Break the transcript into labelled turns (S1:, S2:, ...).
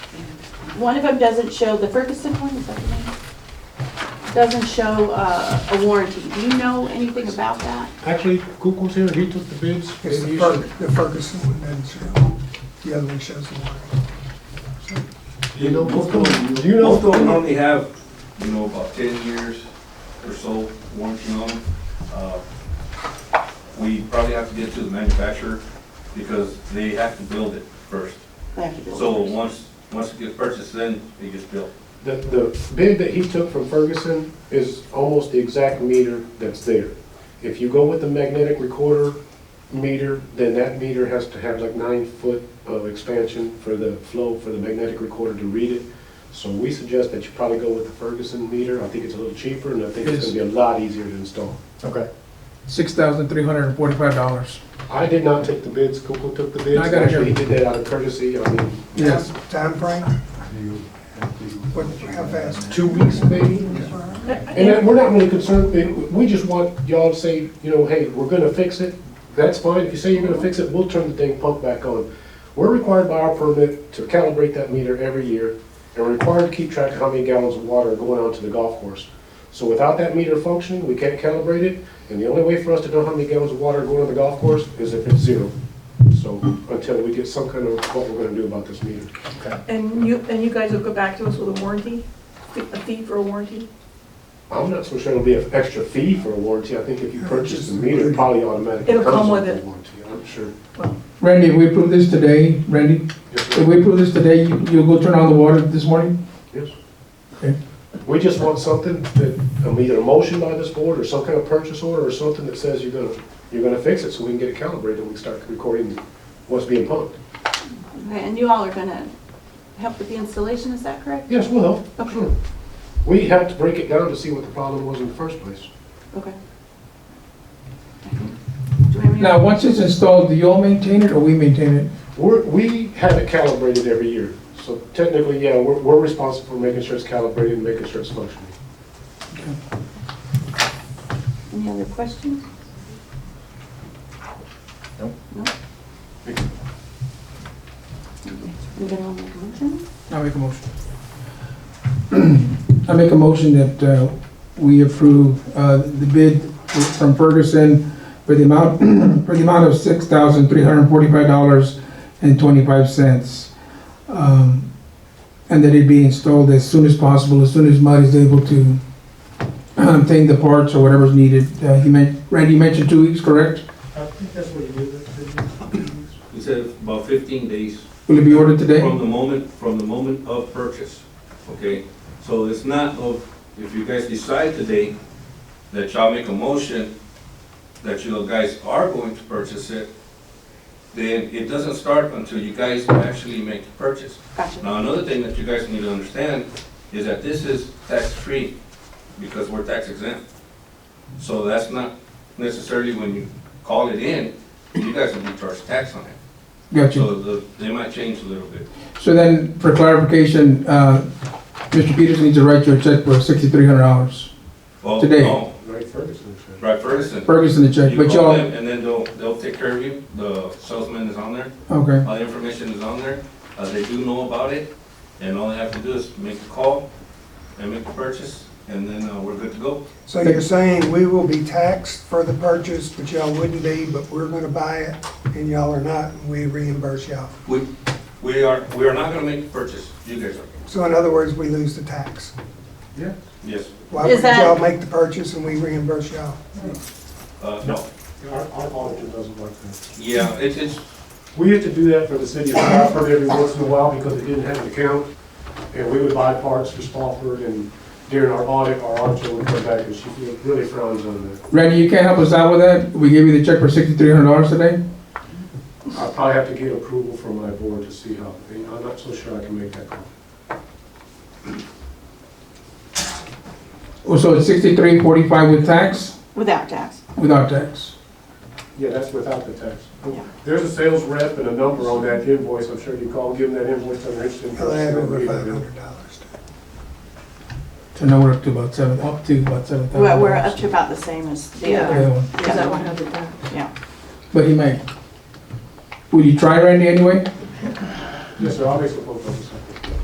S1: one of them doesn't show, the Ferguson one, is that the name? Doesn't show uh, a warranty. Do you know anything about that?
S2: Actually, Kukul's here, he took the bids.
S3: It's
S2: and
S3: the
S2: he
S3: Fer-
S2: should-
S3: the Ferguson one doesn't show, the other one shows the warranty.
S2: You know,
S4: Most of them-
S2: Do you know-
S4: Most of them only have, you know, about ten years or so warranty on them. Uh, We probably have to get to the manufacturer because they have to build it first.
S1: They have to build
S4: So
S1: it.
S4: once, once it gets purchased, then it gets built.
S2: The, the bid that he took from Ferguson is almost the exact meter that's there. If you go with the magnetic recorder meter, then that meter has to have like nine foot of expansion for the flow, for the magnetic recorder to read it. So we suggest that you probably go with the Ferguson meter. I think it's a little cheaper and I think it's gonna be a lot easier to install.
S5: Okay. Six thousand three hundred and forty-five dollars.
S2: I did not take the bids, Kukul took the bids.
S5: I got it here.
S2: Actually, he did that out of courtesy, I mean,
S5: Yes.
S3: Time frame? What, how fast?
S2: two weeks maybe? And that- we're not really concerned, it- we just want y'all to say, you know, hey, we're gonna fix it, that's fine, if you say you're gonna fix it, we'll turn the dang pump back on. We're required by our permit to calibrate that meter every year, and we're required to keep track of how many gallons of water are going out to the golf course. So without that meter functioning, we can't calibrate it, and the only way for us to know how many gallons of water are going to the golf course is if it's zero. So, until we get some kind of, what we're gonna do about this meter.
S6: And you, and you guys will go back to us with a warranty, a fee for a warranty?
S2: I'm not so sure it'll be an extra fee for a warranty. I think if you purchase the meter, it probably automatically.
S6: It'll come
S2: comes
S6: with
S2: a
S6: it.
S2: Warranty, I'm sure.
S6: Well,
S5: Randy, if we approve this today, Randy,
S2: Yes,
S5: if
S2: ma'am.
S5: we approve this today, you- you'll go turn on the water this morning?
S2: Yes.
S5: Okay.
S2: We just want something that, um, either a motion by this board or some kind of purchase order or something that says you're gonna, you're gonna fix it so we can get it calibrated and we can start recording what's being pumped.
S1: Okay, And you all are gonna help with the installation, is that correct?
S2: Yes, well,
S1: Okay,
S2: sure. We have to break it down to see what the problem was in the first place.
S1: okay. Do we have any-
S5: Now, once it's installed, do y'all maintain it or we maintain it?
S2: We're, we have it calibrated every year. So technically, yeah, we're, we're responsible for making sure it's calibrated and making sure it's functioning.
S1: Any other questions? Nope. No? Okay, Anybody want to make a motion?
S5: I make a motion. I make a motion that uh, we approve uh, the bid from Ferguson for the amount, for the amount of six thousand three hundred and forty-five dollars and twenty-five cents. Um, And that it be installed as soon as possible, as soon as Mud is able to obtain the parts or whatever's needed. Uh, He meant, Randy you mentioned two weeks, correct?
S3: I think that's what you did.
S4: He said about fifteen days
S5: Will it be ordered today?
S4: from the moment, from the moment of purchase, okay? So it's not of, if you guys decide today that y'all make a motion that you guys are going to purchase it, then it doesn't start until you guys actually make the purchase.
S1: Gotcha.
S4: Now, another thing that you guys need to understand is that this is tax-free because we're tax exempt. So that's not necessarily when you call it in, you guys will be charged tax on it.
S5: Got you.
S4: So the- they might change a little bit.
S5: So then, for clarification, uh, Mr. Peterson needs to write you a check for sixty-three hundred dollars.
S4: Well,
S5: Today.
S4: no,
S2: Right, Ferguson said.
S4: Right, Ferguson.
S5: Ferguson the check,
S4: You
S5: but
S4: call
S5: y'all,
S4: them and then they'll, they'll take care of you. The salesman is on there.
S5: okay,
S4: All the information is on there. Uh, they do know about it. And all they have to do is make the call and make the purchase and then, uh, we're good to go.
S3: So you're saying we will be taxed for the purchase, but y'all wouldn't be, but we're gonna buy it, and y'all are not, and we reimburse y'all.
S4: We, we are, we are not gonna make the purchase. You guys are.
S3: So in other words, we lose the tax.
S4: Yes.
S3: Why
S1: Is
S3: would
S1: that-
S3: y'all make the purchase and we reimburse y'all?
S4: Uh, no.
S2: Our, our auditor doesn't like that.
S4: Yeah, it's, it's,
S2: We used to do that for the city of Spofford every once in a while because it didn't have an account. And we would buy parts for Spofford and during our audit, our auditor would come back and she really frowns on that.
S5: Randy, you can't help us out with that? We gave you the check for sixty-three hundred dollars today?
S2: I'll probably have to get approval from my board to see how, and I'm not so sure I can make that call.
S5: Oh, So it's sixty-three forty-five with tax,
S1: Without tax.
S5: without tax?
S2: Yeah, that's without the tax.
S1: Yeah.
S2: There's a sales rep and a number on that invoice, I'm sure you call, give them that invoice, they're interested in.
S3: They'll add over five hundred dollars.
S5: So now we're up to about seven, up to about seven thousand
S1: We're,
S5: dollars.
S1: we're up to about the same as the
S6: Yeah.
S1: other,
S6: Is that one hundred dollars?
S1: yeah.
S5: But he may. Will you try Randy anyway?
S2: Yes, sir, I'll make some phone calls.